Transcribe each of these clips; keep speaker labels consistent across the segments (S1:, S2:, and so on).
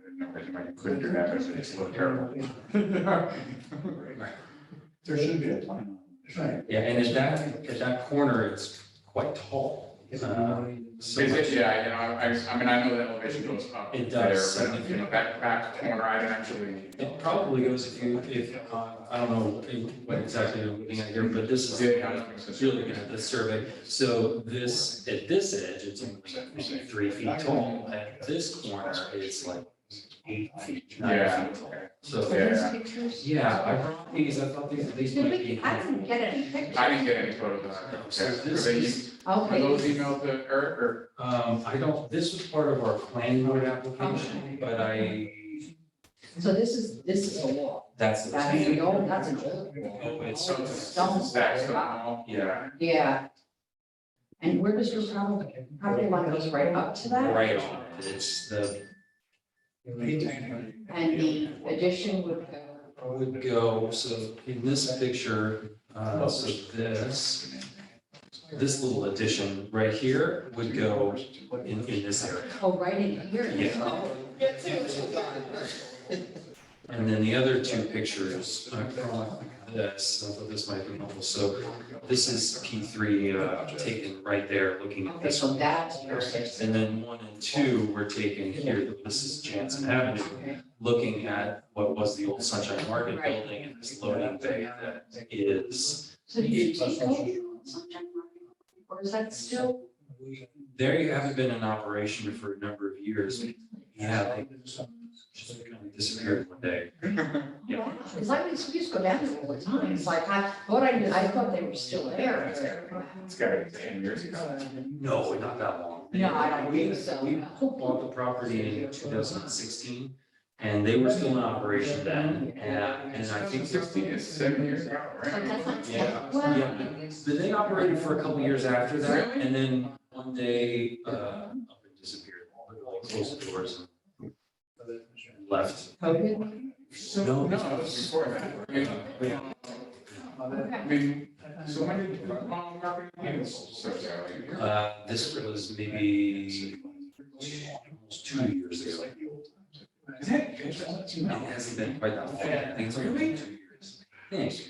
S1: when you put it in that, it's look terrible.
S2: There should be a plan. Right.
S3: Yeah, and at that, at that corner, it's quite tall. Uh, so
S1: Is
S3: much-
S1: it, yeah, you know, I, I- I mean, I know the elevation goes up.
S3: It does.
S1: there, But if you know, back, back corner, I didn't actually.
S3: It probably goes if you, if, uh, I don't know what exactly I'm looking at here, but this is,
S1: Yeah, I don't think so.
S3: it's really good at this survey. So this, at this edge, it's only maybe three feet tall, at this corner, it's like eight feet,
S1: Yeah.
S3: nine feet tall. So, yeah, I brought these, I thought these, these
S4: Did
S3: might
S4: we,
S3: be.
S4: I didn't get any
S1: I
S4: pictures.
S1: didn't get any photos of that.
S3: No, So
S1: Okay, were
S3: this
S1: they-
S3: is.
S1: were those
S4: Okay,
S1: emailed to Eric or?
S3: Um, I don't, this was part of our planning board application, but I,
S4: so this is, this is a wall.
S3: that's. the
S4: That's the old, Oh, that's an old wall.
S3: Oh, it's,
S1: So it's a
S4: Stone
S1: stack
S4: wall,
S1: stone wall?
S3: Yeah.
S4: Yeah. And where does your property, property line goes right up to that?
S3: right on it, it's the,
S4: And the addition would go,
S3: would go, so in this picture, uh, so this, this little addition right here would go in, in this area.
S4: oh, right in here.
S3: Yeah. And then the other two pictures, I brought this, I thought this might be helpful, so this is P three, uh, taken right there, looking at
S4: Okay,
S3: this
S4: so
S3: one.
S4: that's your six.
S3: And then one and two were taken here, this is Jansen Avenue, looking at what was the old Sunshine Market
S4: Right.
S3: building and this loading bay that is.
S4: So did you take over Sunshine Market? Or is that still?
S3: There you haven't been in operation for a number of years, yeah, they just kind of disappeared one day. Yeah.
S4: Because I mean, we used to go down there all the time. It's like, I thought I, knew- I thought they were still there.
S1: It's got to be ten years ago.
S3: No, not that long.
S4: No, I don't
S3: We-
S4: think so.
S3: We bought the property in two thousand and sixteen, and they were still in operation
S4: Mm-hmm.
S3: then, and, and I think they're
S1: Sixteen is seven years ago, right?
S3: Yeah.
S4: Well,
S3: Yeah. But they operated for a couple years after that,
S1: Really?
S3: and then one day, uh, up and disappeared, like closed the doors and left.
S4: COVID?
S3: No,
S1: No, it was before that. I mean,
S3: Yeah.
S1: I
S4: Okay.
S1: mean, so when did the mall market? So, yeah, like-
S3: Uh, this was maybe almost two years ago.
S1: Is that?
S3: It hasn't been quite that long, I think it's only been two years. Thanks.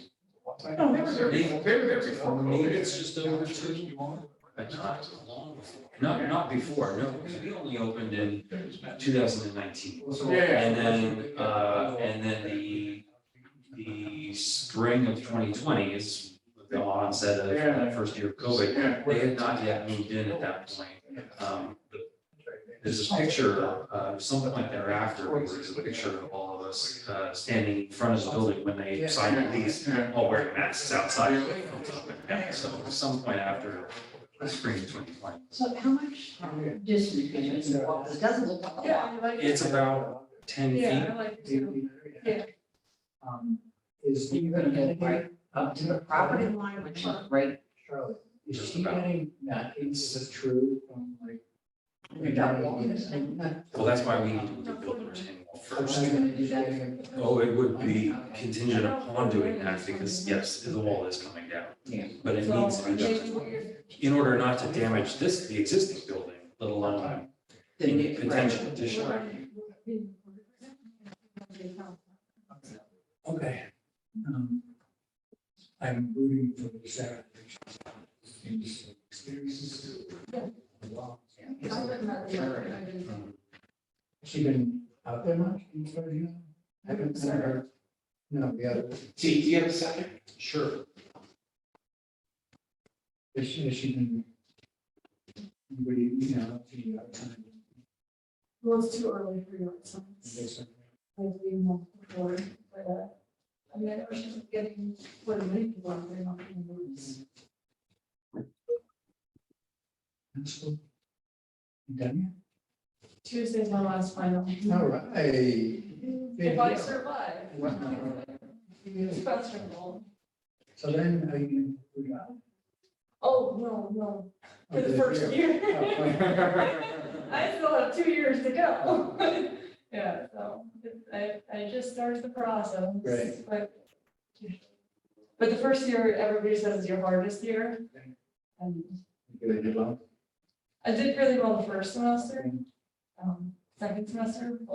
S1: No, they were there, before- they were there before
S3: Maybe it's
S1: COVID.
S3: just over two, but not long before, not, not before, no, because we only opened in two thousand and nineteen.
S1: Yeah.
S3: And then, uh, and then the, the spring of twenty twenty is the onset of that first year of COVID.
S1: Yeah.
S3: They had not yet moved in at that point. Um, but There's a picture, uh, some point thereafter, where there's a picture of all of us, uh, standing in front of the building when they signed the lease,
S1: Yeah.
S3: all wearing masks outside. Yeah, so some point after spring twenty twenty.
S4: So how much distance between the walls? It doesn't look like a lot.
S5: Yeah, I like.
S3: It's about ten feet.
S5: Yeah, I like it too.
S2: Is he
S4: You're gonna
S2: gonna
S4: get
S2: get
S4: right up to the property line, which is right,
S2: Charlotte? Is
S3: Just
S2: he
S3: about.
S2: getting that is true from like?
S4: you're not walking this thing.
S3: Well, that's why we need to build the retaining wall
S2: I'm
S3: first.
S2: just gonna do that here.
S3: Oh, it would be contingent upon doing that because yes, the wall is coming down.
S4: Yeah.
S3: But it needs to be done in order not to damage this, the existing building, let alone any potential addition.
S2: Okay. Um, I'm rooting for the Sarah. Experiences. She been out there much in Georgia? Haven't seen her. No, the other,
S6: Do you do you have a second?
S3: Sure.
S2: has she, has she been? Anybody, you know, the, uh, time?
S5: Well, it's too early for your
S2: is
S5: sons.
S2: there some-
S5: I've been more before, but, uh, I mean, I know she's getting quite a many people out there, not even words.
S2: Pencil? Done
S5: Tuesday's my last final.
S2: yet? All right.
S5: If I survive.
S2: Wow.
S5: Sponsorable.
S2: So then, are you? we got-
S5: Oh, no, no, for
S2: okay,
S5: the first
S2: yeah.
S5: year.
S2: Oh,
S5: I still have two years to go. Yeah, so I, I just started the process.
S2: Right.
S5: But but the first year, everybody says is your hardest year. And
S2: You did well.
S5: I did really well the first semester. Um, Second semester,